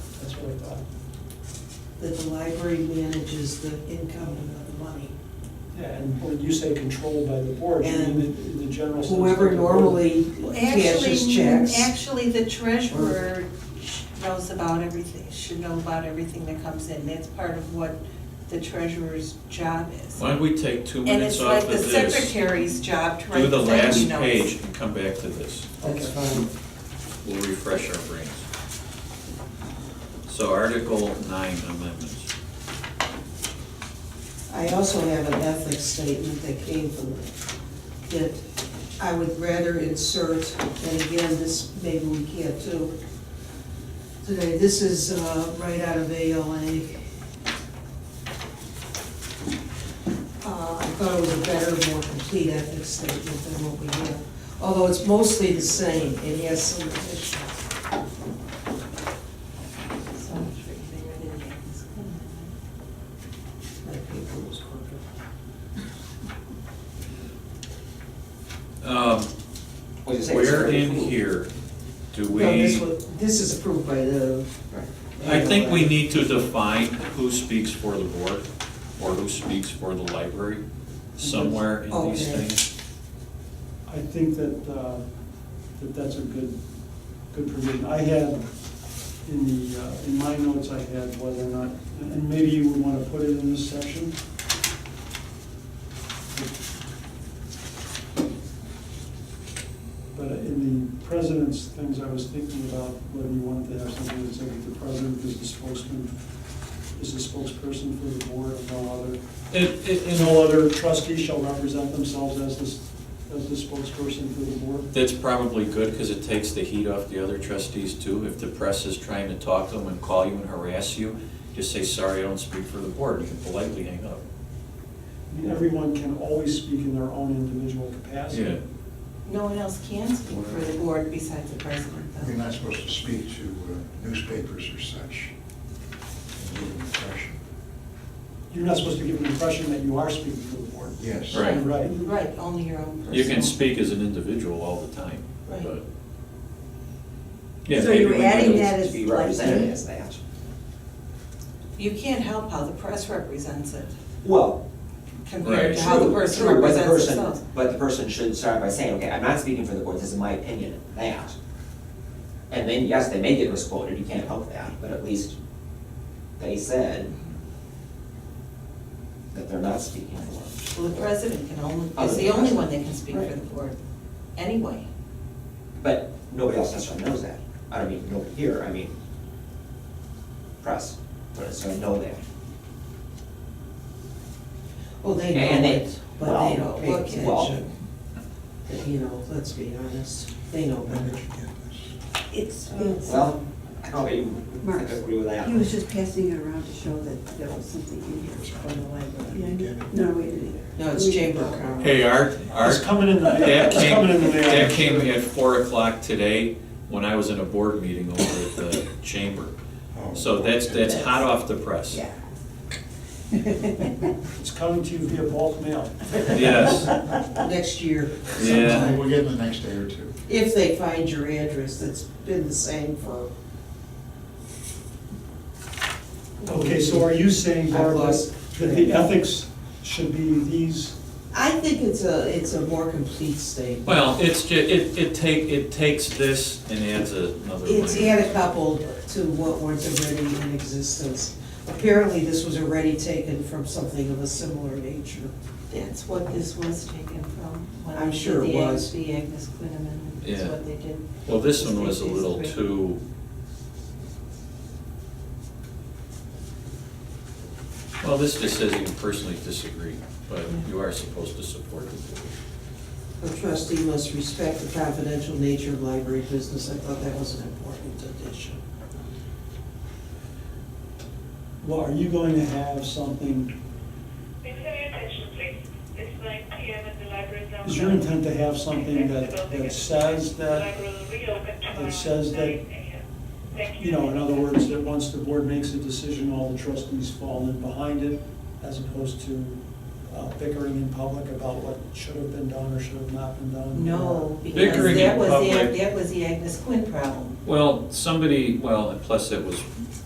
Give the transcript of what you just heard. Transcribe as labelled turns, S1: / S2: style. S1: that's what I thought. That the library manages the income and not the money.
S2: Yeah, and when you say controlled by the board, you mean
S1: And
S2: in the general sense.
S1: Whoever
S2: that the board-
S1: normally
S3: Well,
S1: cashes
S3: actually-
S1: checks.
S3: Actually, the treasurer sh- knows about everything, should know about everything that comes in. That's part of what the treasurer's job is.
S4: Why don't we take two
S3: And
S4: minutes
S3: it's like
S4: off of
S3: the
S4: this?
S3: secretary's job to
S4: Do
S3: write
S4: the
S3: the thank
S4: last
S3: you notes.
S4: page and come back to this.
S1: That's fine.
S4: We'll refresh our brains. So Article nine amendments.
S1: I also have an ethics statement that came from it, that I would rather insert, and again, this, maybe we can't do today, this is uh, right out of ALA. Uh, I thought it was a better, more complete ethics statement than what we have, although it's mostly the same, it has some additions.
S3: So I'm sure you can read it in this one.
S1: My paper was crooked.
S4: Um,
S1: What'd you say?
S4: Where in here do we?
S1: No, this was, this is approved by the.
S4: I think we need to define who speaks for the board or who speaks for the library somewhere in these
S1: Okay.
S4: things.
S2: I think that, uh, that that's a good, good provision. I had, in the, uh, in my notes, I had whether or not, and maybe you would want to put it in this section. But in the president's things, I was thinking about whether you wanted to have something that said that the president is the spokesman, is the spokesperson for the board and no other.
S4: It, it,
S2: And
S4: it-
S2: all other trustees shall represent themselves as the, as the spokesperson for the board.
S4: that's probably good because it takes the heat off the other trustees too. If the press is trying to talk to them and call you and harass you, just say, sorry, I don't speak for the board. You can politely hang up.
S2: I mean, Everyone can always speak in their own individual
S4: Yeah.
S2: capacity.
S3: No one else can speak for the board besides the president,
S5: You're
S3: though.
S5: not supposed to speak to uh, newspapers or such. Give an impression.
S2: You're not supposed to give an impression that you are speaking for the board.
S5: Yes.
S4: Right.
S2: Right.
S3: Right, only your own personal.
S4: You can speak as an individual all the time,
S3: Right.
S4: but. Yeah,
S6: So
S4: maybe we
S6: you're
S4: could-
S6: adding that
S7: To
S6: as
S7: be
S6: like that
S7: represented
S6: as that.
S3: You can't help how the press represents it
S7: Well,
S3: compared
S4: Right.
S3: to how the
S7: true,
S3: person
S7: true, but the
S3: represents
S7: person-
S3: themselves.
S7: But the person should start by saying, okay, I'm not speaking for the board, this is my opinion, that. And then, yes, they may get misquoted, you can't help that, but at least they said that they're not speaking for.
S3: Well, the president can
S1: Oh,
S3: only,
S7: Other
S3: is
S7: than
S3: the only
S7: president.
S3: one that can speak for
S7: Right.
S3: the board, anyway.
S7: But nobody else necessarily knows that. I don't mean nobody here, I mean press, don't necessarily know that.
S1: Well, they
S7: And
S1: know
S7: they-
S1: it, but they don't pay
S7: well, well.
S1: attention. But, You know, let's be honest, they know
S5: Where did
S1: better.
S5: you get this?
S6: It's,
S3: Uh,
S6: it's,
S7: Well, I don't
S6: Mark,
S7: even agree with that.
S6: he was just passing it around to show that there was something in here.
S1: From the library.
S6: Yeah, I knew- No, we didn't either.
S1: No, it's
S2: Mm.
S6: We-
S1: Chamber of Commerce.
S4: Hey, Art, Art.
S2: It's coming in the,
S4: That
S2: it's
S4: came,
S2: coming in the mail.
S4: that came at four o'clock today when I was in a board meeting over at the chamber.
S5: Oh.
S4: So that's, that's hot off the press.
S6: Yeah.
S2: It's coming to you via bulk mail.
S4: Yes,
S1: Next year.
S4: Yeah.
S1: sometime.
S5: We'll get it in the next day or two.
S1: If they find your address, that's been the same for.
S2: Okay, so are you saying,
S1: I've
S2: Barbara,
S1: lost
S2: that the ethics should be these?
S1: I think it's a, it's a more complete statement.
S4: well, it's ju, it, it take, it takes this and adds another
S1: It's
S4: layer.
S1: add a couple to what was already in existence. Apparently, this was already taken from something of a similar nature.
S3: That's what this was taken from. when
S1: I'm
S3: they did
S1: sure it
S3: the Ag-
S1: was.
S3: The Agnes Quinn amendment, that's
S4: Yeah.
S3: what they did.
S4: Well, this one was a little
S3: These three.
S4: too, well, this just says you personally disagree, but you are supposed to support the board.
S1: A trustee must respect the confidential nature of library business. I thought that was an important addition.
S2: Well, are you going to have something,
S8: Please have your attention, please. It's nine PM and the library is now.
S2: is your
S8: closed.
S2: intent to have something that, that says
S8: The
S2: that,
S8: library will reopen tomorrow at
S2: says that-
S8: 9 a.m. Thank
S2: you know, in other words, that once the board makes a decision, all the trustees fall in behind it, as opposed to uh, bickering in public about what should have been done or should have not been done?
S3: No, because
S4: Bickering in
S3: that was the,
S4: public.
S3: Ag- that was the Agnes Quinn problem.
S4: Well, somebody, well, and plus it was